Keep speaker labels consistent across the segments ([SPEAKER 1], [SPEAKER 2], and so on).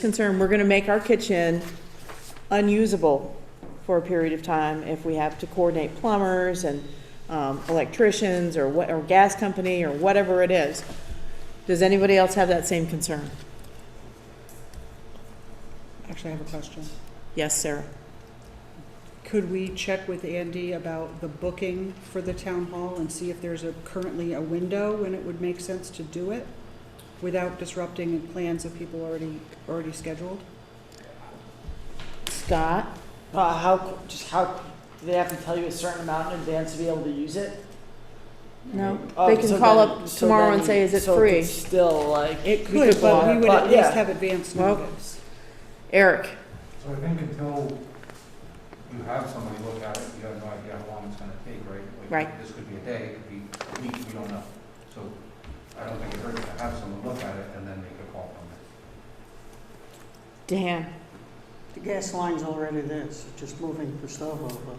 [SPEAKER 1] concern, we're gonna make our kitchen unusable for a period of time if we have to coordinate plumbers and um, electricians or what, or gas company or whatever it is. Does anybody else have that same concern?
[SPEAKER 2] Actually, I have a question.
[SPEAKER 1] Yes, Sarah?
[SPEAKER 2] Could we check with Andy about the booking for the town hall and see if there's a, currently a window when it would make sense to do it without disrupting plans of people already, already scheduled?
[SPEAKER 1] Scott?
[SPEAKER 3] Uh, how, just how, do they have to tell you a certain amount in advance to be able to use it?
[SPEAKER 1] No?
[SPEAKER 3] Oh,
[SPEAKER 1] They can
[SPEAKER 3] so
[SPEAKER 1] call
[SPEAKER 3] then-
[SPEAKER 1] up
[SPEAKER 3] so
[SPEAKER 1] tomorrow
[SPEAKER 3] then
[SPEAKER 1] and say,
[SPEAKER 3] you-
[SPEAKER 1] is it
[SPEAKER 3] so
[SPEAKER 1] free?
[SPEAKER 3] it's Still like.
[SPEAKER 2] It
[SPEAKER 1] We could
[SPEAKER 2] could, but
[SPEAKER 1] block
[SPEAKER 2] we
[SPEAKER 3] it,
[SPEAKER 2] would at
[SPEAKER 3] but
[SPEAKER 2] least
[SPEAKER 3] yeah.
[SPEAKER 2] have advance
[SPEAKER 1] Well-
[SPEAKER 2] notice.
[SPEAKER 1] Eric?
[SPEAKER 4] So I think until you have somebody look at it, you have no idea how long it's gonna take, right? Like,
[SPEAKER 1] Right.
[SPEAKER 4] This could be a day, it could be a week, we don't know. So I don't think it hurts to have someone look at it and then make a call from it.
[SPEAKER 1] Dan?
[SPEAKER 5] The gas line's already there, so just moving Gustavo over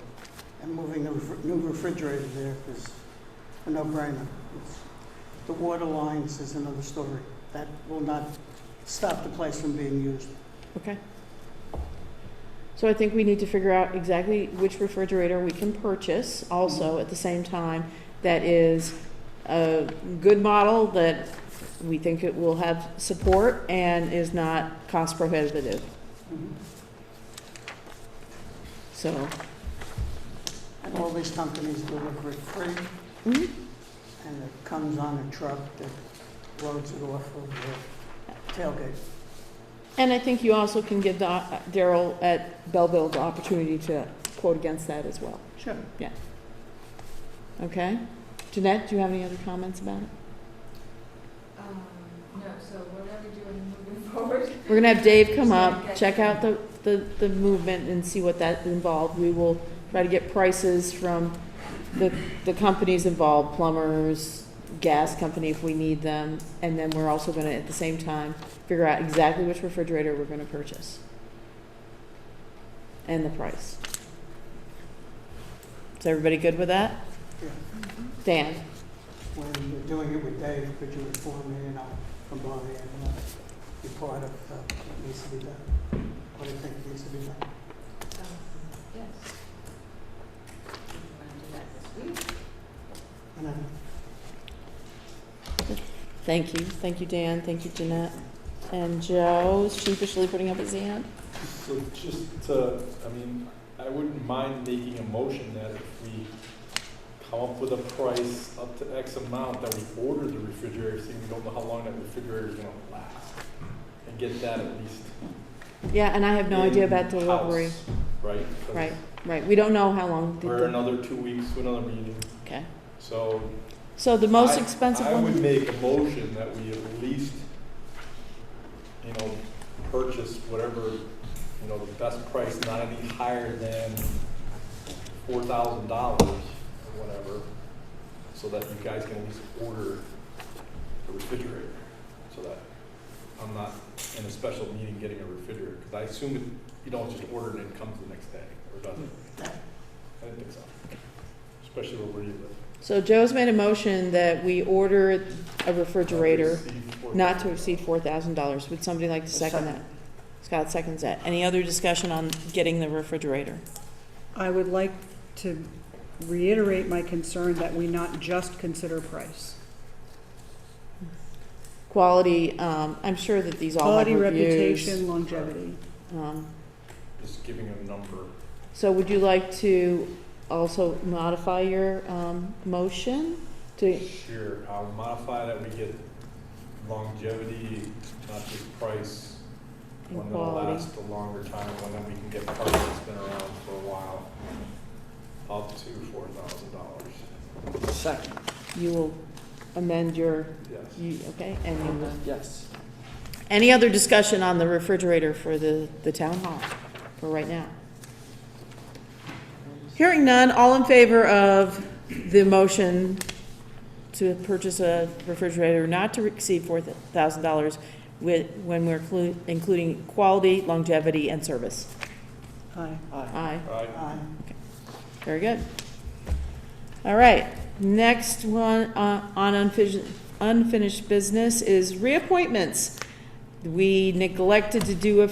[SPEAKER 5] and moving a ref- new refrigerator there is a no-brainer. It's- The water lines is another story. That will not stop the place from being used.
[SPEAKER 1] Okay. So I think we need to figure out exactly which refrigerator we can purchase also at the same time that is a good model that we think it will have support and is not cost prohibitive.
[SPEAKER 3] Mm-hmm.
[SPEAKER 5] Mhm.
[SPEAKER 1] So,
[SPEAKER 5] And all these companies deliver it free,
[SPEAKER 1] mhm.
[SPEAKER 5] and it comes on a truck that loads it off of the tailgate.
[SPEAKER 1] and I think you also can give the- Daryl at Belleville the opportunity to quote against that as well.
[SPEAKER 5] Sure.
[SPEAKER 1] Okay? Jeanette, do you have any other comments about it?
[SPEAKER 6] Um, no, so what are we doing moving forward?
[SPEAKER 1] We're gonna have Dave come up, check out the, the, the movement and see what that involved. We will try to get prices from the, the companies involved, plumbers, gas company if we need them. And then we're also gonna, at the same time, figure out exactly which refrigerator we're gonna purchase. And the price. Is everybody good with that?
[SPEAKER 5] Yeah.
[SPEAKER 1] Dan?
[SPEAKER 5] When you're doing it with Dave, could you inform me, and I'll come by and uh, be part of uh, what needs to be done? What do you think needs to be done?
[SPEAKER 6] Um, Yes. Do you want to do that this week?
[SPEAKER 5] And I
[SPEAKER 1] Thank you. Thank you, Dan. Thank you, Jeanette. And Joe's sheepishly putting up his hand.
[SPEAKER 7] So just to, I mean, I wouldn't mind making a motion that if we come up with a price up to X amount, that we order the refrigerator, seeing we don't know how long that refrigerator is gonna last. And get that at least.
[SPEAKER 1] Yeah, and I have no idea about
[SPEAKER 7] in-house,
[SPEAKER 1] delivery.
[SPEAKER 7] Right? 'Cause
[SPEAKER 1] Right, right, we don't know how long. the-
[SPEAKER 7] We're another two weeks to another meeting,
[SPEAKER 1] Okay,
[SPEAKER 7] so.
[SPEAKER 1] so the most
[SPEAKER 7] I-
[SPEAKER 1] expensive
[SPEAKER 7] I would
[SPEAKER 1] one,
[SPEAKER 7] make a motion that we at least, you know, purchase whatever, you know, the best price, not any higher than four thousand dollars or whatever, so that you guys can at least order a refrigerator, so that I'm not in a special meeting getting a refrigerator, because I assume it- you don't just order it and it comes the next day, or doesn't.
[SPEAKER 1] Mm,
[SPEAKER 7] I didn't think so, especially where we live.
[SPEAKER 1] so Joe's made a motion that we order a refrigerator not to exceed four thousand dollars. Would somebody like to second that? Scott seconds that. Any other discussion on getting the refrigerator?
[SPEAKER 2] I would like to reiterate my concern that we not just consider price.
[SPEAKER 1] Quality, um, I'm sure that these all have
[SPEAKER 2] Quality,
[SPEAKER 1] reviews.
[SPEAKER 2] reputation, longevity.
[SPEAKER 1] Um,
[SPEAKER 7] Just giving a number.
[SPEAKER 1] So would you like to also modify your, um, motion to,
[SPEAKER 7] Sure, I'll modify that, we get longevity, not just price.
[SPEAKER 1] And
[SPEAKER 7] One that'll
[SPEAKER 1] quality.
[SPEAKER 7] last a longer time, one that we can get parts that's been around for a while, up to four thousand dollars.
[SPEAKER 3] Second,
[SPEAKER 1] you will amend your,
[SPEAKER 7] Yes,
[SPEAKER 1] you, okay, and you will
[SPEAKER 3] yes.
[SPEAKER 1] Any other discussion on the refrigerator for the, the town hall for right now? Hearing none, all in favor of the motion to purchase a refrigerator not to exceed four thousand dollars with, when we're clu- including quality, longevity, and service?
[SPEAKER 2] Aye.
[SPEAKER 1] Aye.
[SPEAKER 7] I,
[SPEAKER 1] Very good. All right, next one uh, on unfinished, unfinished business is reappointments. we neglected to do a